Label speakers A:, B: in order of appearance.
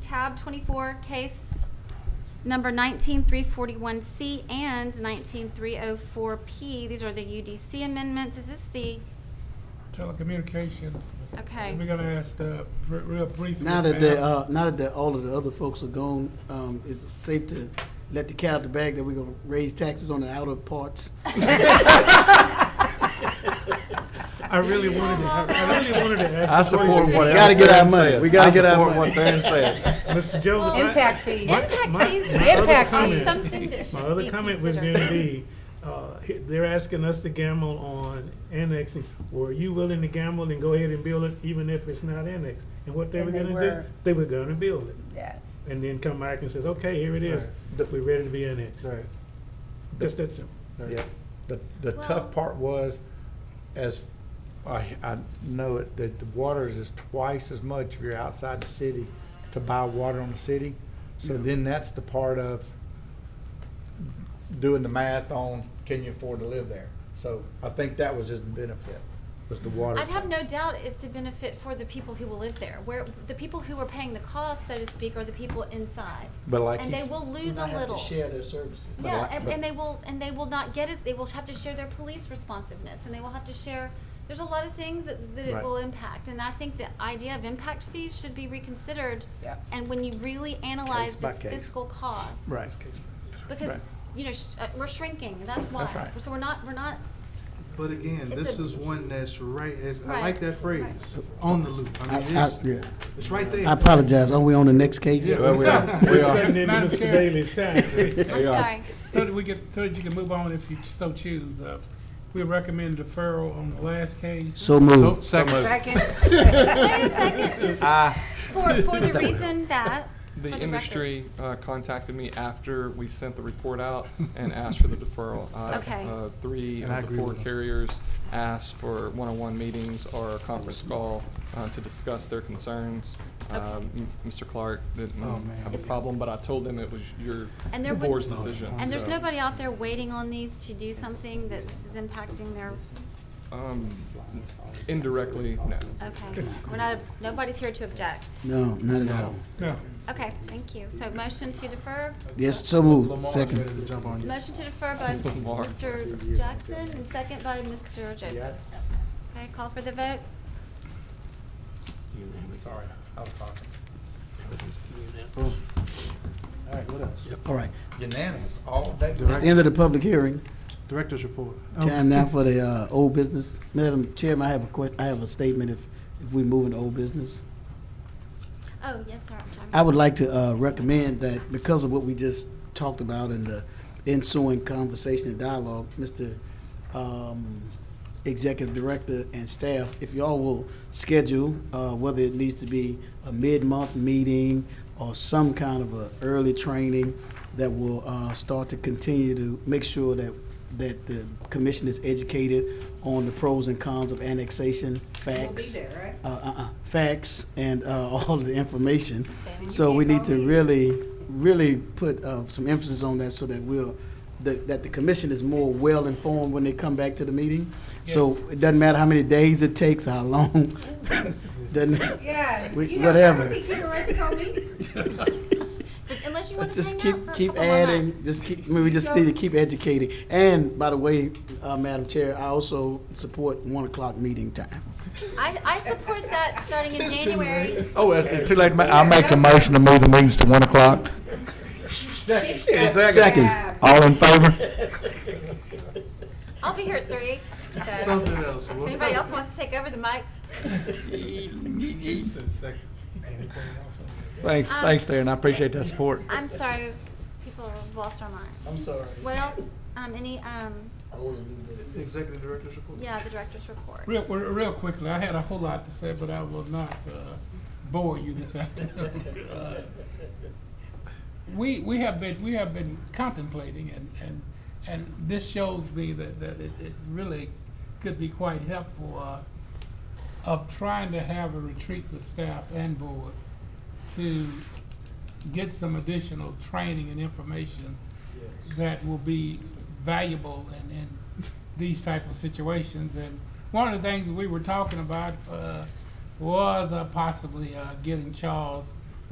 A: tab 24, case number 19341C and 19304P. These are the UDC amendments. Is this the,
B: Telecommunication.
A: Okay.
B: We're gonna ask, uh, re- real briefly.
C: Now that the,
B: ma'am.
C: uh, now that the, all of the other folks are gone, um, it's safe to let the cat out the bag that we're gonna raise taxes on the outer parts.
B: I really wanted to, I really wanted to ask.
D: I
B: the
D: support
B: question.
D: what
C: We gotta
D: Aaron
C: get our
D: Theron
C: money.
D: said.
C: We gotta
D: I
C: get our
D: support
C: money.
D: what Theron said.
C: uh,
B: Mr. Joseph. I-
E: Impact fees.
B: my-
A: Impact
B: my-
A: fees.
B: my other
E: Impact
B: comment-
E: fees.
A: Something that
B: My
A: should
B: other
A: be
B: comment was
A: considered.
B: gonna be, uh, he- they're asking us to gamble on annexing. Were you willing to gamble and go ahead and build it even if it's not annexed? And what they
E: And
B: were
E: they
B: gonna
E: were.
B: do, they were gonna build it.
E: Yeah.
B: And then come back and says, okay, here it is,
D: Right.
B: we're ready to be annexed.
D: Right.
B: Just that simple.
D: Yeah, the, the
A: Well-
D: tough part was, as, I, I know it, that the waters is twice as much if you're outside the city to buy water on the city. So
C: Yeah.
D: then that's the part of doing the math on, can you afford to live there? So I think that was his benefit, was the water.
A: I'd have
D: thing.
A: no doubt it's a benefit for the people who will live there. Where, the people who are paying the cost, so to speak, are the people inside.
D: But like
A: And
D: he's-
A: they will lose a
C: Not have to
A: little.
C: Share their services.
D: But
A: Yeah,
D: like-
A: and,
D: but-
A: and they will, and they will not get as, they will have to share their police responsiveness, and they will have to share, there's a lot of things that, that it
D: Right.
A: will impact, and I think the idea of impact fees should be reconsidered.
E: Yeah.
A: And when you really analyze
D: Case by
A: this
D: case.
A: fiscal cost.
D: Right.
A: Because,
D: Right.
A: you know, sh- uh, we're shrinking, that's why.
D: That's right.
A: So we're not, we're not,
F: But again,
A: It's
F: this
A: a-
F: is one that's right, it's- I
A: Right,
F: like that phrase, on the loop. I
C: I,
F: mean,
C: I,
F: it's,
C: yeah,
F: it's right there.
C: I apologize. Are we on the next case?
D: Yeah, well, we are, we
B: Cutting
D: are.
B: into
G: Madam
B: Mr.
G: Chair.
B: Bailey's time.
A: I'm
D: Yeah.
A: sorry.
G: So that we get, so that you can move on if you so choose. Uh, We recommend deferral on the last case.
C: So moved.
D: Second.
E: Second,
A: Wait a second, just
C: Ah.
D: Ah.
A: for, for the reason that,
H: The
A: For the
H: industry uh, contacted me after we sent the report out and asked for the deferral. Uh,
A: Okay.
H: uh, Three
F: And I
H: of the
F: agree
H: four
F: with them.
H: carriers asked for one-on-one meetings or a conference call uh, to discuss their concerns. Um, m- Mr. Clark didn't
F: Oh,
H: have a
A: Is-
H: problem, but I told him it was your
A: And there
H: the board's
A: wouldn't-
H: decision.
A: and there's
H: so,
A: nobody out there waiting on these to do something that this is impacting their,
H: um, Indirectly, no.
A: okay. We're not, nobody's here to object.
C: No, not at all.
B: No.
A: Okay, thank you. So motion to defer,
C: Yes, so moved.
F: Lamar's ready to
C: Second.
F: jump on you.
A: motion to defer by
H: Lamar.
A: Mr. Jackson and second by Mr. Joseph. Okay, call for the vote.
D: Sorry, I was talking.
F: All right, what else?
C: All right.
D: Unanimous, all day.
C: It's the end of the public hearing.
F: Director's report.
C: Time now for the, uh, old business. Madam Chairman, I have a que, I have a statement if, if we move into old business.
A: Oh, yes, sir. I'm sorry.
C: I would like to uh, recommend that because of what we just talked about in the ensuing conversation and dialogue, Mr. um, Executive Director and staff, if y'all will schedule, uh, whether it needs to be a mid-month meeting or some kind of a early training that will uh, start to continue to make sure that, that the commission is educated on the pros and cons of annexation,
E: we'll be
C: facts
E: there, right?
C: uh, uh-uh, facts and uh, all of the information.
A: Okay.
C: So we need to really, really put uh, some emphasis on that so that we'll, that that the commission is more well-informed when they come back to the meeting. So it doesn't matter how many days it takes, how long, doesn't,
E: Yeah.
C: We-
E: you know,
C: whatever.
E: I think you're right to call me.
A: But Unless um, you want
C: Let's
A: to
C: just
A: hang out for
C: keep,
A: a
C: keep
A: couple more
C: adding, just keep, I mean, we just need to keep educating. And by the way, uh, Madam Chair, I also support one o'clock meeting time.
A: months. I, I support that starting in January.
D: Oh, it's too late, I'll make a motion to move the meetings to one o'clock.
C: Second,
E: Yeah.
D: All in favor?
A: I'll be here at three. So
F: Something else.
A: if
F: What-
A: anybody else wants to take over the mic,
D: Thanks,
A: Um,
D: thanks, Darren, I appreciate that support.
A: I'm sorry, people lost our mind.
C: I'm sorry.
A: What else? Um, any, um,
F: Executive Director's report.
A: yeah, the director's report.
G: Real, real real quickly, I had a whole lot to say, but I will not uh, bore you this afternoon. Uh, We, we have been, we have been contemplating and, and, and this shows me that, that it, it really could be quite helpful uh, of trying to have a retreat with staff and board to get some additional training and information that will be valuable in, in these type of situations. And one of the things we were talking about uh, was uh, possibly uh, getting Charles